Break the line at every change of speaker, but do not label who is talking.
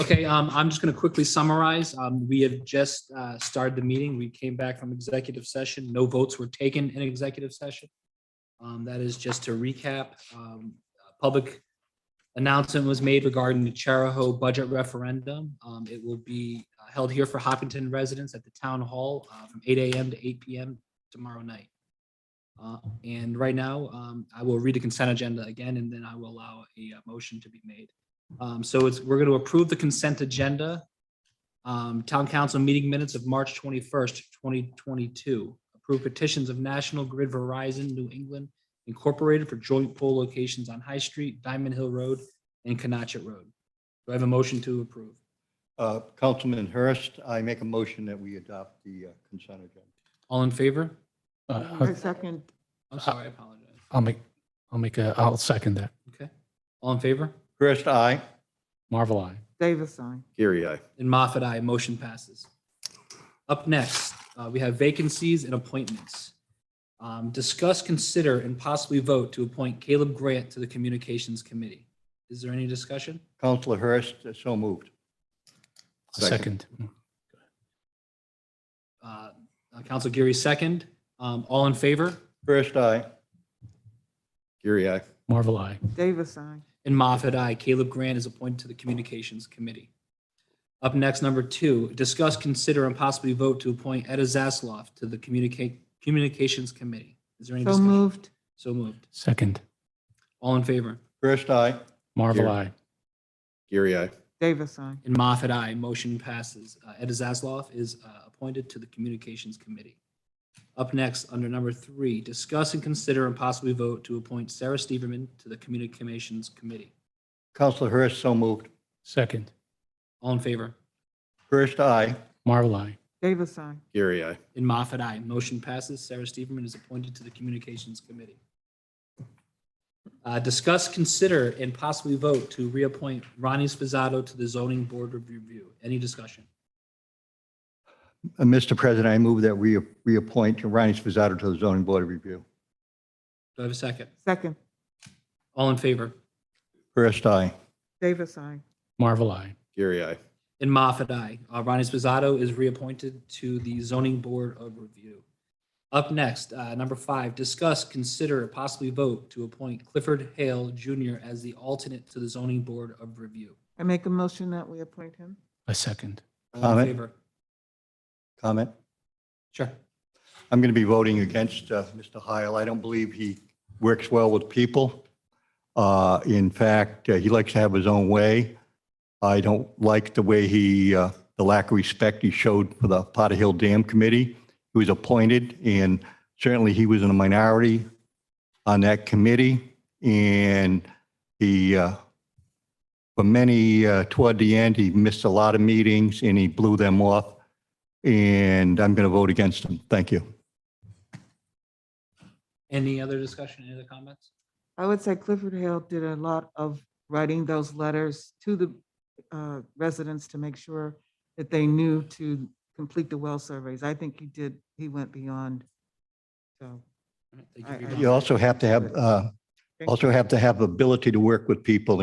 Okay, um, I'm just going to quickly summarize. Um, we have just, uh, started the meeting. We came back from executive session. No votes were taken in executive session. Um, that is just to recap, um, a public announcement was made regarding the Charahoe budget referendum. Um, it will be uh, held here for Hopkinton residents at the town hall, uh, from eight AM to eight PM tomorrow night. Uh, and right now, um, I will read the consent agenda again, and then I will allow a uh, motion to be made. Um, so it's, we're going to approve the consent agenda. Um, town council meeting minutes of March twenty-first, twenty twenty-two. Approve petitions of National Grid Verizon New England Incorporated for joint pole locations on High Street, Diamond Hill Road, and Canachet Road. Do I have a motion to approve?
Uh, Councilman Hurst, I make a motion that we adopt the uh, consent agenda.
All in favor?
I
Uh,
second,
I'm sorry, I apologize.
I'll make, I'll make a, I'll second that.
Okay, all in favor?
Hurst, aye.
Marvel eye.
Davis, aye.
Gary, I.
And Moffat, I motion passes. Up next, uh, we have vacancies and appointments. Um, Discuss, consider, and possibly vote to appoint Caleb Grant to the Communications Committee. Is there any discussion?
Councilor Hurst, uh, so moved.
Second. Mm.
Uh, uh, Council Geary, second. Um, All in favor?
Hurst, aye.
Gary, I.
Marvel eye.
Davis, aye.
And Moffat, I. Caleb Grant is appointed to the Communications Committee. Up next, number two, discuss, consider, and possibly vote to appoint Etta Zasloff to the Communica- Communications Committee. Is there any
So
discussion?
moved,
So moved.
Second.
All in favor?
Hurst, aye.
Marvel
Here.
eye.
Gary, I.
Davis, aye.
And Moffat, I Motion passes. Uh, Ed Zasloff is uh, appointed to the Communications Committee. Up next, under number three, discuss and consider and possibly vote to appoint Sarah Steverman to the Communications Committee.
Councilor Hurst, so moved.
Second.
All in favor?
Hurst, aye.
Marvel eye.
Davis, aye.
Gary, I.
In Moffat, I Motion passes. Sarah Steverman is appointed to the Communications Committee. Uh, Discuss, consider, and possibly vote to reappoint Ronnie Spizzato to the Zoning Board of Review. Any discussion?
Uh, Mr. President, I move that we reappoint Ronnie Spizzato to the zoning board of review.
Do I have a second?
Second,
All in favor?
Hurst, aye.
Davis, aye.
Marvel eye.
Gary, I.
In Moffat, aye. Uh, Ronnie Spizzato is reappointed to the Zoning Board of Review. Up next, uh, number five, discuss, consider, and possibly vote to appoint Clifford Hale Jr. as the alternate to the Zoning Board of Review.
I make a motion that we appoint him.
A second.
All in
Comment?
favor?
Comment?
Sure.
I'm going to be voting against uh, Mr. Heil. I don't believe he works well with people. Uh, In fact, uh, he likes to have his own way. I don't like the way he, uh, the lack of respect he showed for the Potter Hill Dam Committee. He was appointed, and certainly he was in a minority on that committee. And he, uh, for many, uh, toward the end, he missed a lot of meetings, and he blew them off. And I'm going to vote against him. Thank you.
Any other discussion, any other comments?
I would say Clifford Hale did a lot of writing those letters to the uh, residents to make sure that they knew to complete the well surveys. I think he did, he went beyond. So,
All right, thank you for your
I- I-
comments.
You also have to have, uh, also have to have ability to work with people and